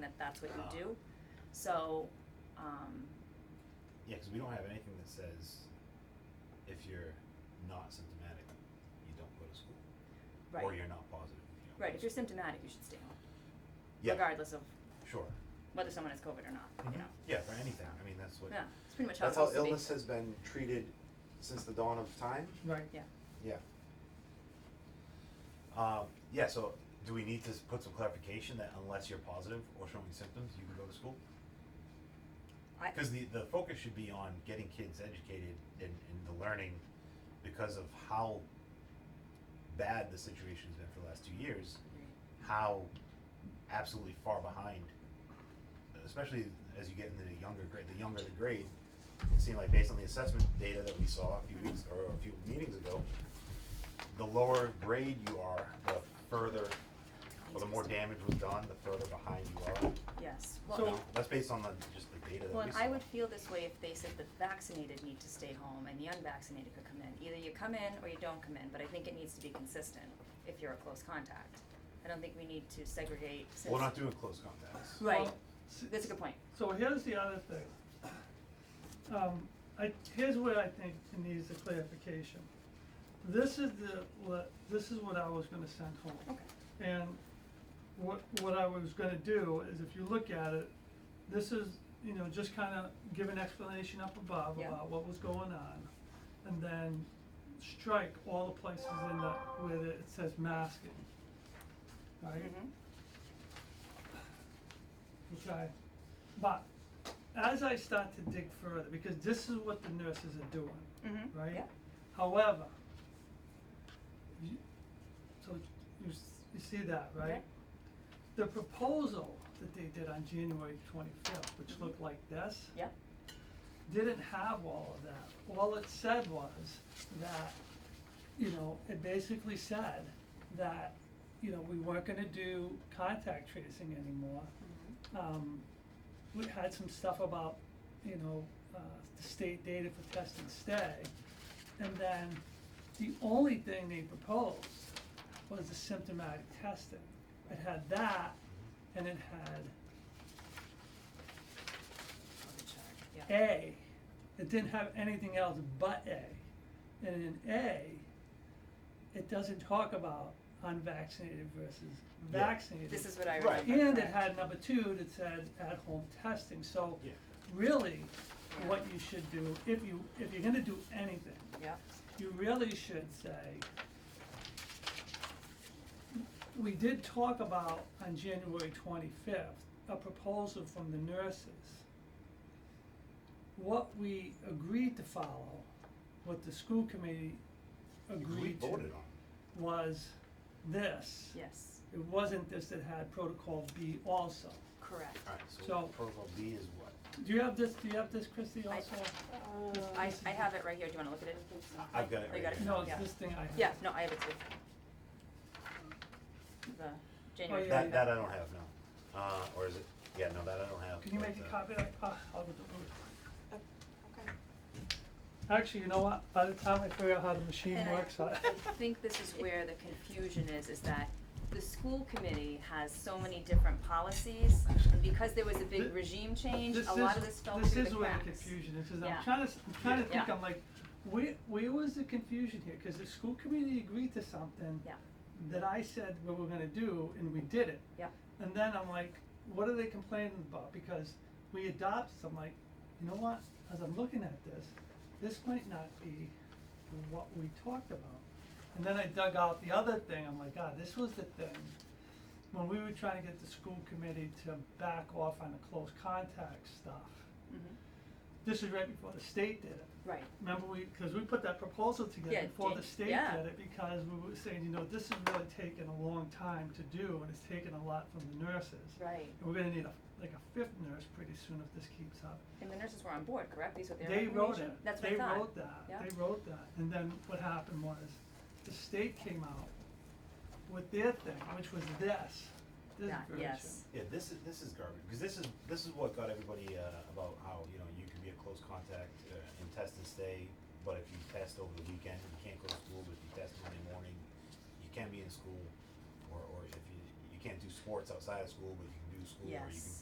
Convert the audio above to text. that that's what you do. So, um, Yeah, because we don't have anything that says if you're not symptomatic, you don't go to school. Or right, you're not positive. you don't go right, to if you're school. symptomatic, you should stay home, Yeah, regardless of sure. whether someone has COVID or not, you know? Yeah, for anything. I mean, that's what. Yeah, it's pretty much how it's That's how supposed to be. illness has been treated since the dawn of time. Right. Yeah, Yeah. Um, yeah, so do we need to s- put some clarification that unless you're positive or showing symptoms, you can go to school? I, Because the, the focus should be on getting kids educated in, in the learning because of how bad the situation's been for the last two years. how absolutely far behind, especially as you get into the younger grade, the younger the grade, it seemed like based on the assessment data that we saw a few weeks or a few meetings ago, the lower grade you are, the further, or the more damage was done, the further behind you are. yes, well, So- and- That's based on the, just the data that we saw. Well, and I would feel this way if they said the vaccinated need to stay home and the unvaccinated could come in. Either you come in or you don't come in, but I think it needs to be consistent if you're a close contact. I don't think we need to segregate since. We're not doing close contacts. Right, Well, s- that's a good point. So here's the other thing. Um, I, here's what I think needs a clarification. This is the, le- this is what I was gonna send home. Okay, And what, what I was gonna do is if you look at it, this is, you know, just kinda give an explanation up above Yeah. about what was going on. And then strike all the places in the, where it says masking. Right? mhm, Okay, but as I start to dig further, because this is what the nurses are doing, mhm, right? yeah, However, you, so you, s- you see that, right? Okay. The proposal that they did on January twenty-fifth, which looked like this, Mm-hmm. yeah, didn't have all of that. All it said was that, you know, it basically said that, you know, we weren't gonna do contact tracing anymore. Mm-hmm. Um, we had some stuff about, you know, uh, the state data for test and stay. And then the only thing they proposed was the symptomatic testing. It had that and it had on the chart, yeah. A, it didn't have anything else but A. And in A, it doesn't talk about unvaccinated versus Yeah. vaccinated. This is what I Right. remember. And it correct. had number two that said at-home testing, so Yeah. really, what you should do, if you, if you're gonna do anything, Yeah, you really should say, we did talk about on January twenty-fifth, a proposal from the nurses. What we agreed to follow, what the school committee We agreed voted to, on. was this. yes, It wasn't this that had protocol B also. correct. Alright, so So- protocol B is what? Do you have this, do you have this, Christie, I- also? I, I have it right here, do you wanna look at it? I've got it Oh, right you got it? here. No, it's Yeah. this thing I have. Yeah, no, I have it too. The January. Oh, yeah, That, yeah. that I don't have, no. Uh, or is it, yeah, no, that I don't have. Can you but, make a uh, copy of that? Ah, I'll do it. Okay. Actually, you know what, by the time I figure out how the machine And I- works, I. I think this is where the confusion is, is that the school committee has so many different policies, and because there was a big Thi- regime change, This a lot is- of this fell through the cracks. This is where the confusion is, is Yeah. I'm trying to, s- I'm trying to think, Yeah. I'm like, where, where was the confusion here? Cause the school committee agreed to something Yeah, that I said we were gonna do, and we did it. yeah, And then I'm like, what are they complaining about? Because we adopt, I'm like, you know what, as I'm looking at this, this might not be what we talked about. And then I dug out the other thing, I'm like, God, this was the thing. When we were trying to get the school committee to back off on the close contact stuff, mhm, this is right before the state did it. right, Remember we, cause we put that proposal Yeah, together before the did- state yeah. did it, because we were saying, you know, this has really taken a long time to do, and it's taken a lot from the nurses. right. And we're gonna need a, like a fifth nurse pretty soon if this keeps up. And the nurses were on board, correct? These were their They wrote recommendation? it, That's what I they thought. wrote that, Yeah. they wrote that, and then what happened was, the state came out with their thing, which was this, this That- version. yes. Yeah, this is this is garbage because this is this is what got everybody uh, about how you know you can be a close contact uh, and test and stay, but if you test over the weekend, you can't go to school. But if you test Monday morning, you can be in school, or, or if you you can't do sports outside of school, but you can do school, or you can Yes.